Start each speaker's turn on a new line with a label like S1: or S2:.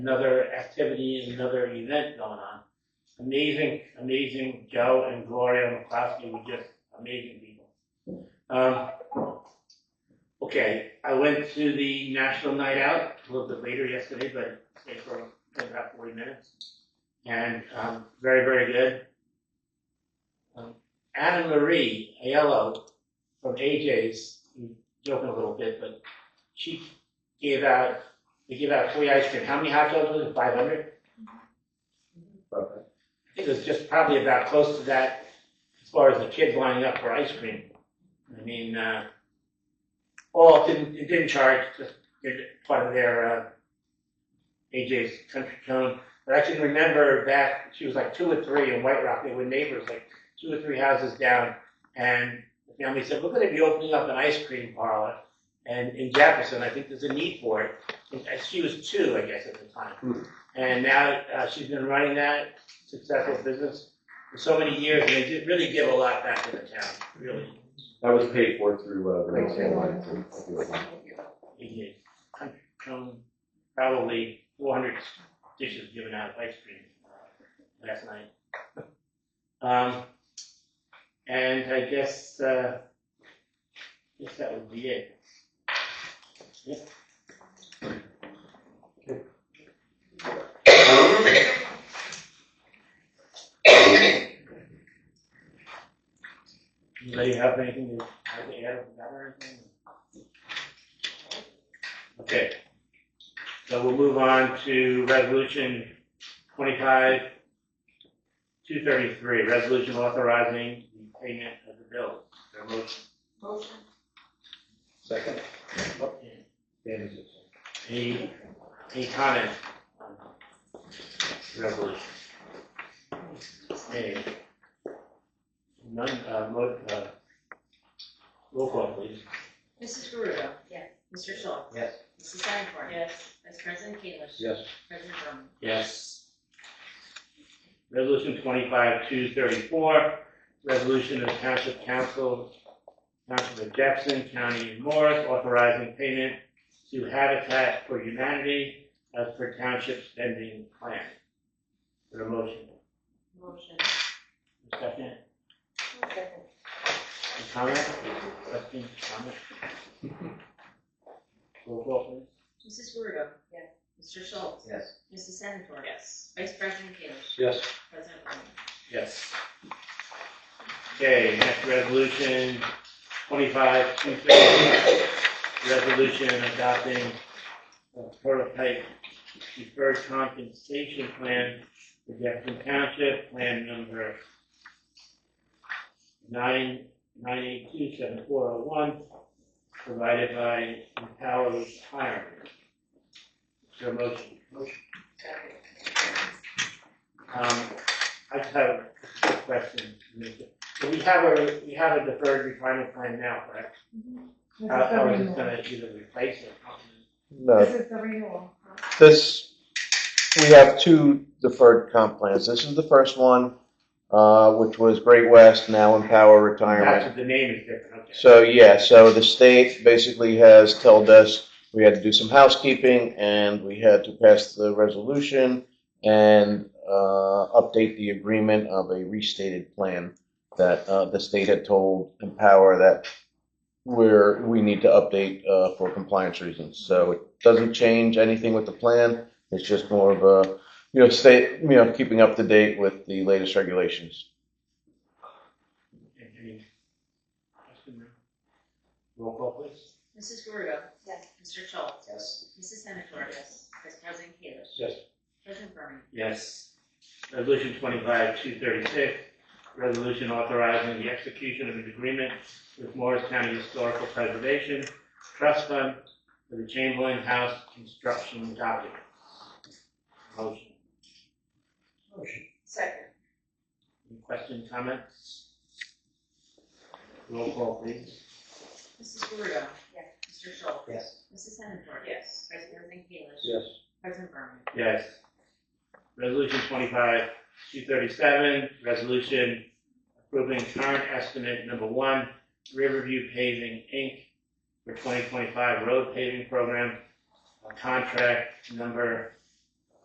S1: another activity and another event going on. Amazing, amazing Joe and Gloria McCloskey were just amazing people. Um, okay, I went to the National Night Out a little bit later yesterday, but stayed for about forty minutes. And, um, very, very good. Um, Anna Marie Aiello from AJ's, I'm joking a little bit, but she gave out, they gave out free ice cream. How many hot dogs was it? Five hundred?
S2: Okay.
S1: I think it was just probably about close to that as far as the kids lining up for ice cream. I mean, uh, all didn't, it didn't charge, just did it part of their, uh, AJ's Country Cone. But I can remember back, she was like two or three in White Rock, they were neighbors, like two or three houses down. And the family said, we're gonna be opening up an ice cream parlor. And in Jefferson, I think there's a need for it. And she was two, I guess, at the
S2: Hmm.
S1: time. And now, uh, she's been running that successful business for so many years, and they did really give a lot back to the town, really.
S2: That was paid for through, uh, Renee Sandline.
S1: They did. Hundred- um, Probably four hundred dishes given out of ice cream uh, last night. Um, and I guess, uh, I guess that would be it. Yep. Anybody have anything to have to add about or anything? Okay. So we'll move on to resolution twenty-five, two thirty-three, resolution authorizing the payment of the bill. Is there a motion?
S3: Motion.
S2: Second.
S1: Any, any comment on the resolution? Any? None, uh, mo, uh, roll call please.
S4: Mrs. Gurudo.
S3: Yes.
S4: Mr. Schultz.
S2: Yes.
S4: Mrs. Senator.
S3: Yes.
S4: Vice President Keilish.
S2: Yes.
S4: President Berman.
S1: Yes. Resolution twenty-five, two thirty-four, resolution of the Township Council, Township of Jefferson, County of Morris, authorizing payment to Habitat for Humanity as per township spending plan. For a motion,
S3: Motion.
S1: a second,
S3: Second.
S1: a comment, question, comment? Roll call please.
S4: Mrs. Gurudo.
S3: Yes.
S4: Mr. Schultz.
S2: Yes.
S4: Mrs. Senator. Yes. Vice President Keilish.
S2: Yes.
S4: President Berman.
S1: Yes. Okay, next resolution, twenty-five, two fifty, resolution adopting a prototype deferred compensation plan for Jefferson Township, plan number nine, nine eight two seven four oh one, provided by Empower Retirement. Is there a motion?
S4: Second.
S1: Um, I just have a quick question. So We have a, we have a deferred retirement plan now, correct? How, how is it gonna either replace or complement?
S5: No,
S3: is the renewal.
S5: this, we have two deferred comp plans. This is the first one, uh, which was Great West, now Empower Retirement.
S1: That's, the name is different, okay.
S5: So, yeah, so the state basically has told us we had to do some housekeeping and we had to pass the resolution and, uh, update the agreement of a restated plan that, uh, the state had told Empower that we're, we need to update, uh, for compliance reasons. So it doesn't change anything with the plan. It's just more of a, you know, state, you know, keeping up to date with the latest regulations.
S1: Any question? Roll call please.
S4: Mrs. Gurudo.
S3: Yes.
S4: Mr. Schultz.
S2: Yes.
S4: Mrs. Senator. Yes. Vice President Keilish.
S2: Yes.
S4: President Berman.
S1: Yes. Resolution twenty-five, two thirty-six, resolution authorizing the execution of an agreement with Morris County Historical Preservation Trust Fund for the Chamberlain House construction document. Motion.
S4: Second.
S1: Any questions, comments? Roll call, please.
S4: Mrs. Gurudo.
S3: Yes.
S4: Mr. Schultz.
S2: Yes.
S4: Mrs. Senator.
S3: Yes.
S4: Vice President Keilish.
S2: Yes.
S4: President Berman.
S1: Yes. Resolution twenty-five, two thirty-seven, resolution approving current estimate number one, Riverview Paving, Inc., for twenty twenty-five road paving program, uh, contract number